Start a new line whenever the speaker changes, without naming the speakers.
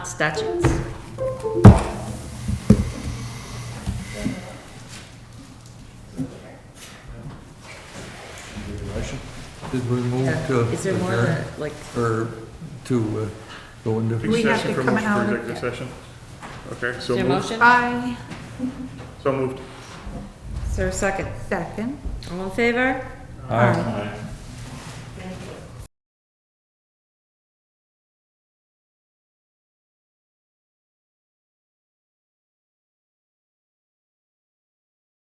statutes.
Did we move to
Is there more of
adjourn,
a, like,
or to uh, go into,
We have
Executive
to
for
come
motion for
out of-
executive session? Okay,
is
so
there a
moved,
motion?
I
so moved.
Is there a second?
second.
All in favor?
Aye.
Aye.